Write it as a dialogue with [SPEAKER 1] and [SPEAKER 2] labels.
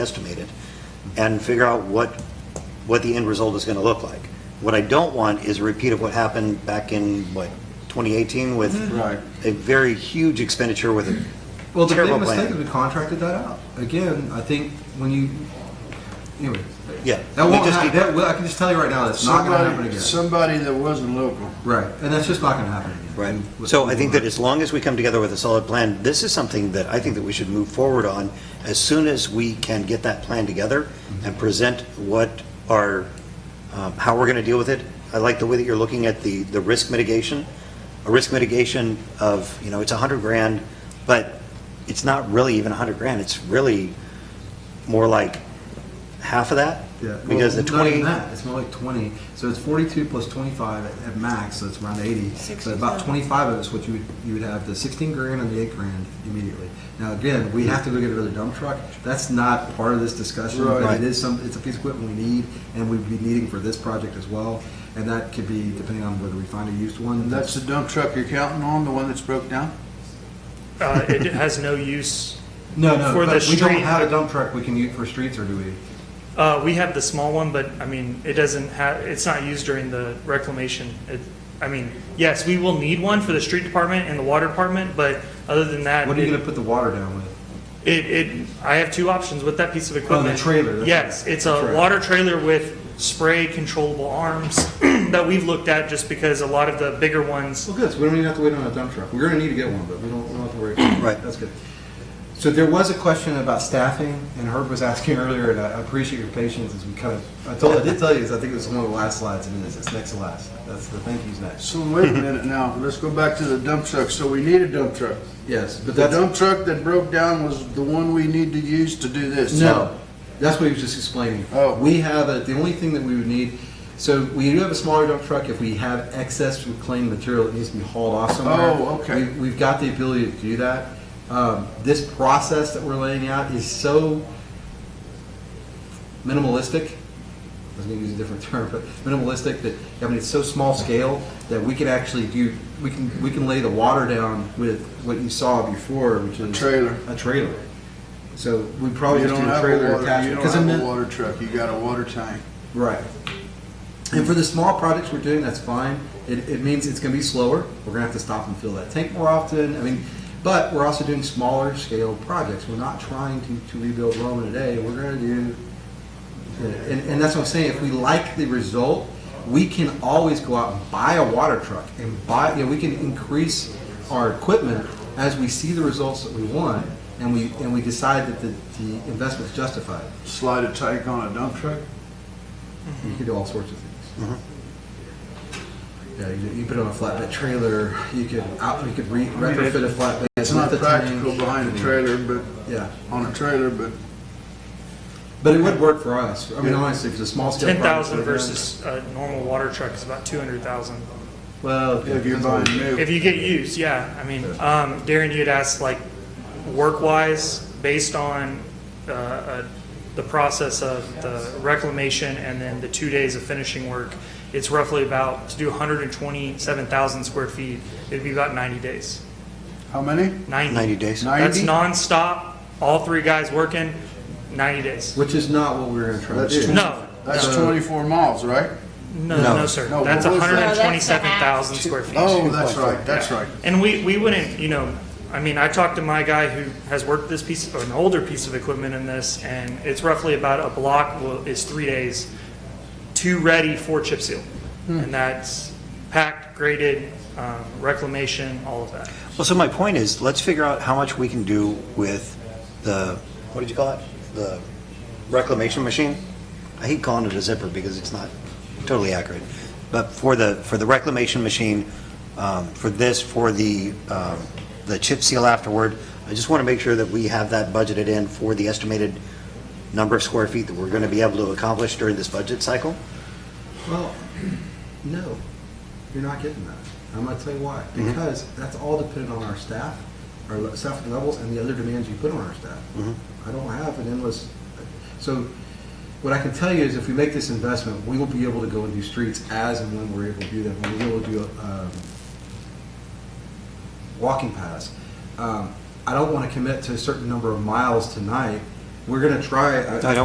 [SPEAKER 1] estimated, and figure out what, what the end result is going to look like. What I don't want is a repeat of what happened back in, what, 2018 with
[SPEAKER 2] Right.
[SPEAKER 1] a very huge expenditure with a
[SPEAKER 2] Well, the
[SPEAKER 1] terrible
[SPEAKER 2] big mistake is we
[SPEAKER 1] plan.
[SPEAKER 2] contracted that out. Again, I think when you, anyway,
[SPEAKER 1] Yeah.
[SPEAKER 2] that
[SPEAKER 1] we
[SPEAKER 2] won't
[SPEAKER 1] just
[SPEAKER 2] happen.
[SPEAKER 1] need-
[SPEAKER 2] That will, I can just tell you right now, that's not going to happen
[SPEAKER 3] Somebody,
[SPEAKER 2] again.
[SPEAKER 3] somebody that wasn't local.
[SPEAKER 2] right, and that's just not going to happen again.
[SPEAKER 1] Right.
[SPEAKER 2] With-
[SPEAKER 1] So I think that as long as we come together with a solid plan, this is something that I think that we should move forward on as soon as we can get that plan together
[SPEAKER 2] Mm-hmm.
[SPEAKER 1] and present what our, um, how we're going to deal with it. I like the way that you're looking at the, the risk mitigation, a risk mitigation of, you know, it's a 100 grand, but it's not really even a 100 grand, it's really more like half of that?
[SPEAKER 2] Yeah.
[SPEAKER 1] Because the
[SPEAKER 2] Well, not
[SPEAKER 1] 20.
[SPEAKER 2] even that. It's more like 20. So it's 42 plus 25 at, at max, so it's around 80. So about
[SPEAKER 4] 65.
[SPEAKER 2] 25 of us, what you would, you would have the 16 grand and the 8 grand immediately. Now, again, we have to go get another dump truck. That's not part of this discussion, but
[SPEAKER 1] Right.
[SPEAKER 2] it is some, it's a piece of equipment we need and we'd be needing for this project as well. And that could be depending on whether we find a used one.
[SPEAKER 3] And that's the dump truck you're counting on, the one that's broke down?
[SPEAKER 5] Uh, it has no use.
[SPEAKER 2] no, no,
[SPEAKER 5] for
[SPEAKER 2] but
[SPEAKER 5] the
[SPEAKER 2] we don't
[SPEAKER 5] street.
[SPEAKER 2] have a dump truck we can use for streets, or do we?
[SPEAKER 5] Uh, we have the small one, but I mean, it doesn't have, it's not used during the reclamation. It, I mean, yes, we will need one for the street department and the water department, but other than that,
[SPEAKER 2] What are you going to
[SPEAKER 5] it,
[SPEAKER 2] put the water down with?
[SPEAKER 5] it, it- I have two options with that piece of
[SPEAKER 2] Oh,
[SPEAKER 5] equipment.
[SPEAKER 2] the trailer. that's
[SPEAKER 5] Yes, it's
[SPEAKER 2] the
[SPEAKER 5] a
[SPEAKER 2] trailer.
[SPEAKER 5] water trailer with spray controllable arms that we've looked at just because a lot of the bigger ones,
[SPEAKER 2] Well, good, so we don't even have to wait on a dump truck. We're gonna need to get one, but we don't, we don't have to worry.
[SPEAKER 1] Right.
[SPEAKER 2] That's good. So there was a question about staffing, and Herb was asking earlier, and I appreciate your patience as we kind of, I told, I did tell you, this, I think it was one of the last slides, and it's, it's next to last. That's the thank yous next.
[SPEAKER 3] So wait a minute now, let's go back to the dump truck. So we need a dump truck.
[SPEAKER 2] Yes, but
[SPEAKER 3] The
[SPEAKER 2] that's,
[SPEAKER 3] dump truck that broke down was the one we need to use to do this.
[SPEAKER 2] no, that's what he was just explaining.
[SPEAKER 3] Oh.
[SPEAKER 2] We have, a- the only thing that we would need, so we do have a smaller dump truck, if we have excess reclaimed material that needs to be hauled off somewhere.
[SPEAKER 3] Oh, okay.
[SPEAKER 2] we- We've got the ability to do that. Um, This process that we're laying out is so minimalistic, I was going to use a different term, but minimalistic that, I mean, it's so small scale that we can actually do, we can, we can lay the water down with what you saw before, which is.
[SPEAKER 3] Trailer.
[SPEAKER 2] A trailer. So we probably
[SPEAKER 3] You
[SPEAKER 2] Oh, just
[SPEAKER 3] don't
[SPEAKER 2] do a
[SPEAKER 3] have
[SPEAKER 2] trailer
[SPEAKER 3] a water, you
[SPEAKER 2] attachment.
[SPEAKER 3] don't
[SPEAKER 2] 'cause in
[SPEAKER 3] have
[SPEAKER 2] the-
[SPEAKER 3] a water truck, you got a water tank.
[SPEAKER 2] Right. And for the small projects we're doing, that's fine. It, it means it's gonna be slower. We're gonna have to stop and fill that tank more often. I mean, but we're also doing smaller scale projects. We're not trying to, to rebuild Rome in a day. We're gonna do, and, and that's what I'm saying. If we like the result, we can always go out and buy a water truck and buy, you know, we can increase our equipment as we see the results that we want and we, and we decide that the, the investment's justified.
[SPEAKER 3] Slide a tank on a dump truck?
[SPEAKER 2] You can do all sorts of things.
[SPEAKER 3] Mm-hmm.
[SPEAKER 2] Yeah, you, you put it on a flatbed trailer, you could out, you could re- retrofit a flatbed.
[SPEAKER 3] It's
[SPEAKER 2] with
[SPEAKER 3] not
[SPEAKER 2] a
[SPEAKER 3] practical
[SPEAKER 2] tank.
[SPEAKER 3] behind a trailer, but,
[SPEAKER 2] Yeah,
[SPEAKER 3] on a trailer, but
[SPEAKER 2] but it would work for us. I mean,
[SPEAKER 3] Yeah.
[SPEAKER 2] honestly, if it's a small scale.
[SPEAKER 5] ten thousand
[SPEAKER 2] project, we're
[SPEAKER 5] versus a normal water truck is about two hundred thousand.
[SPEAKER 2] done. Well,
[SPEAKER 3] if you're buying new.
[SPEAKER 5] If you get used, yeah. I mean, um, Darren, you'd asked like work-wise, based on uh, uh, the process of the reclamation and then the two days of finishing work, it's roughly about, to do 127,000 square feet, it'd be about 90 days.
[SPEAKER 3] How many?
[SPEAKER 5] 90.
[SPEAKER 1] 90 days.
[SPEAKER 5] That's
[SPEAKER 3] 90?
[SPEAKER 5] nonstop, all three guys working, 90 days.
[SPEAKER 2] Which is not what we were gonna try to
[SPEAKER 3] That's
[SPEAKER 2] do.
[SPEAKER 3] true.
[SPEAKER 5] No,
[SPEAKER 3] That's
[SPEAKER 2] Uh,
[SPEAKER 3] twenty-four miles, right?
[SPEAKER 5] no,
[SPEAKER 1] No.
[SPEAKER 5] no, sir.
[SPEAKER 3] No,
[SPEAKER 5] That's
[SPEAKER 3] what was that?
[SPEAKER 5] 127,000 square feet.
[SPEAKER 3] Oh, that's right, that's right.
[SPEAKER 5] And we, we wouldn't, you know, I mean, I talked to my guy who has worked this piece, or an older piece of equipment in this, and it's roughly about a block will- is three days, two ready, four chip seal.
[SPEAKER 3] Hmm.
[SPEAKER 5] And that's packed, graded, um, reclamation, all of that.
[SPEAKER 1] Well, so my point is, let's figure out how much we can do with the, what did you call it? The reclamation machine? I hate calling it a zipper because it's not totally accurate. But for the, for the reclamation machine, um, for this, for the, um, the chip seal afterward, I just want to make sure that we have that budgeted in for the estimated number of square feet that we're going to be able to accomplish during this budget cycle.
[SPEAKER 2] Well, no, you're not getting that. I'm gonna tell you why. Because that's all dependent on our staff, our le- staff levels, and the other demands you put on our staff. I don't have an endless, so what I can tell you is if we make this investment, we will be able to go and do streets as and when we're able to do them. We'll be able to do, um, walking paths. Um, I don't want to commit to a certain number of miles tonight
[SPEAKER 6] we're gonna try. I-
[SPEAKER 2] I don't